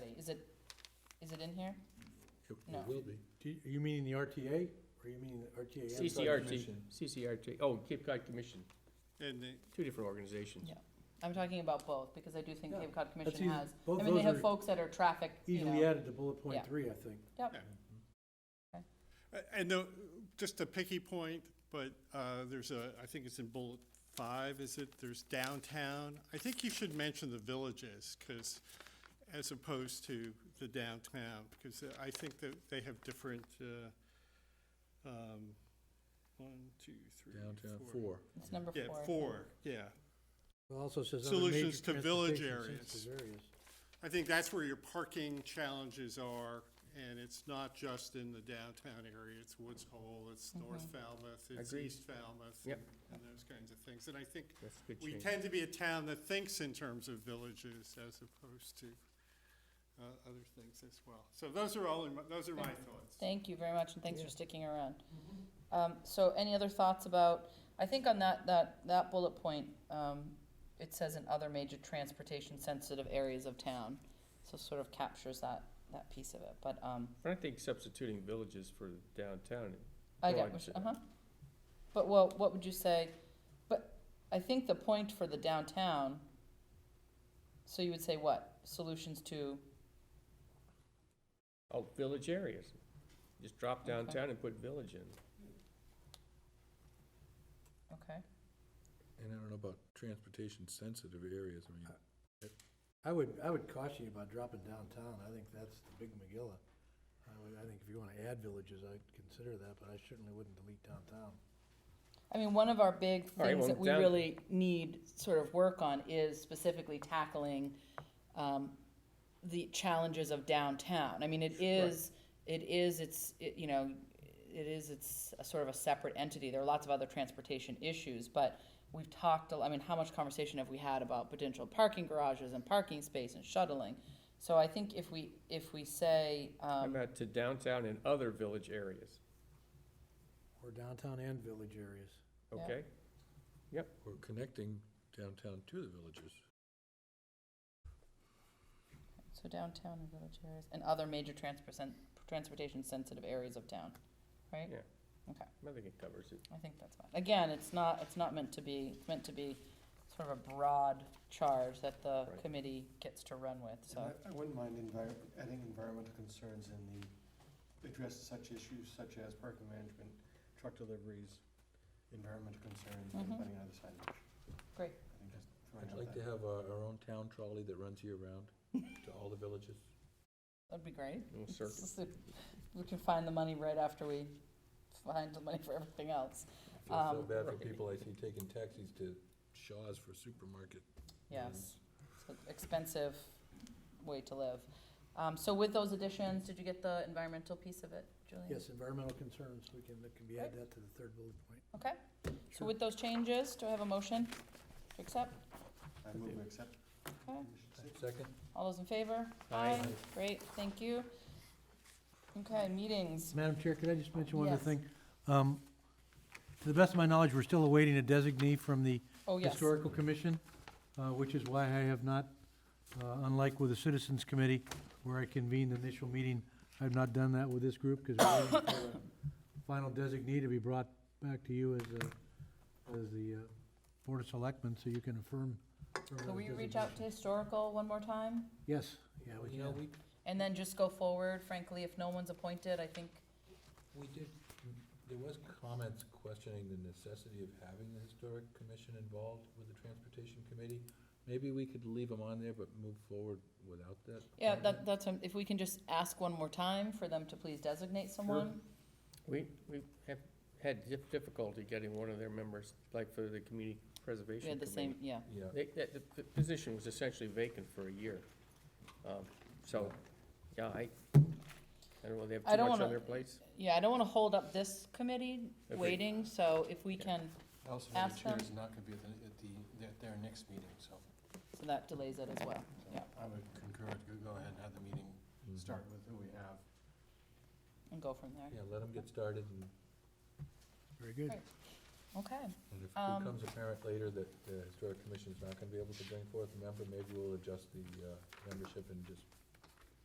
Is it in here? It No. it will be. Do you- You mean the RTA, or you mean the RTA? and CCRT, Commission? CCRT, oh, Cape Cod Commission, And the- two different organizations. Yeah. I'm talking about both, because I do think Yeah. Cape Cod That's Commission easy, has, both I mean, they those have are folks that are traffic, you easily know. added to bullet Yeah. point three, I think. uh, and the, just a picky point, but uh, there's a, I think it's in bullet five, is it? There's downtown. I think you should mention the villages, because, as opposed to the downtown, because I think that they have different, uh, um, one, two, three, Downtown four. four. It's number Yeah, four. I four, think. yeah. It also says other major Solutions to village transportation sensitive areas. I think that's where your parking challenges are, and it's not just in the downtown area, it's Woods Hole, it's North Falmouth, it's Mm-hmm. Agreed. East Falmouth. Yep. And those kinds of things, and I think That's a good we change. tend to be a town that thinks in terms of villages as opposed to, uh, other things as well. So those are all, in my- those are my thoughts. Thank you very much, and thanks for sticking around. Mm-hmm. Um, so any other thoughts about, I think on that, that, that bullet point, um, it says in other major transportation sensitive areas of town. So sort of captures that, that piece of it, but, um, But I think substituting villages for downtown, I Go get, on, what you- sit down. uh-huh. But well, what would you say, but I think the point for the downtown, so you would say what, solutions to, oh, village areas. Just drop downtown and put village in. okay, And I don't know about transportation sensitive areas, I mean, Uh, I would, I would caution you about dropping downtown, I think that's the big McGilla. I would, I think if you wanna add villages, I'd consider that, but I certainly wouldn't delete downtown. I mean, one of our big All right, things well, that we down- really need sort of work on is specifically tackling, um, the challenges of downtown, I mean, it is, it is, it's, it, you know, it is, it's a sort of a separate entity, there are lots of other transportation issues, but we've talked, a l- I mean, how much conversation have we had about potential parking garages and parking space and shuttling? So I think if we, if we say, How um, about to downtown and other village areas, Or downtown and village areas. Yeah. okay? we're connecting downtown to the villages. so downtown and village areas, and other major transport, transportation sensitive areas of town, right? Yeah. Okay. I think it covers it. I think that's fine. Again, it's not, it's not meant to be, it's meant to be sort of a broad charge that the Right. committee gets to run with, so. I I wouldn't mind envir- adding environmental concerns in the, address such issues such as parking management, truck deliveries, environmental concerns, and Mhm. putting out the signage. Great. I think just throwing I'd out like that. to have our, our own town trolley that runs year round to all the villages. That'd be great. Little circle. We can find the money right after we find the money for everything else. I feel so Um, bad for right. people I see taking taxis to Shaw's for supermarket. Yes, it's Mm-hmm. an expensive way to live. Um, so with those additions, did you get the environmental piece of it, Julian? Yes, environmental concerns, we can, that can be add that to the third bullet point. Okay, so with those changes, do I have a motion to accept? I move to accept. Okay. Condition six. Second? All those in favor? Aye. Great, thank you. Okay, meetings. Madam Chair, could I just mention one other Yes. thing? Um, To the best of my knowledge, we're still awaiting a designee from the Oh, yes. Historical Commission, uh, which is why I have not, uh, unlike with the Citizens Committee, where I convened the initial meeting, I've not done that with this group, because we're waiting for a final designee to be brought back to you as, a- as the uh, Board of Selectmen, so you can affirm. affirm Can that we reach designation. out to historical one more time? Yes, yeah, we You know, can. we, And then just go forward, frankly, if no one's appointed, I think, we did, there was comments questioning the necessity of having the historic commission involved with the transportation committee. Maybe we could leave them on there, but move forward without that. yeah, appointment. that, that's, um, if we can just ask one more time for them to please designate someone. We, we have had dif- difficulty getting one of their members, like for the community preservation We had committee. the same, yeah. Yeah. They, that, the, the position was essentially vacant for a year. Um, so, yeah, I, I don't know, they have I too don't much on wanna- their plates. Yeah, I don't wanna hold up this committee Agreed. waiting, so if we Yeah. can, I Also, know the Ask them. chair is not gonna be at the, at the, their- their next meeting, so. so that delays it as well, so Yeah. I would concur, to go ahead and have the meeting Mm-hmm. start with who we have. and go from there. mm-hmm. Yeah, let them get started, and Very good. Okay, and if it Um, becomes apparent later that the historic commission's not gonna be able to bring forth a member, maybe we'll adjust the, uh, membership and just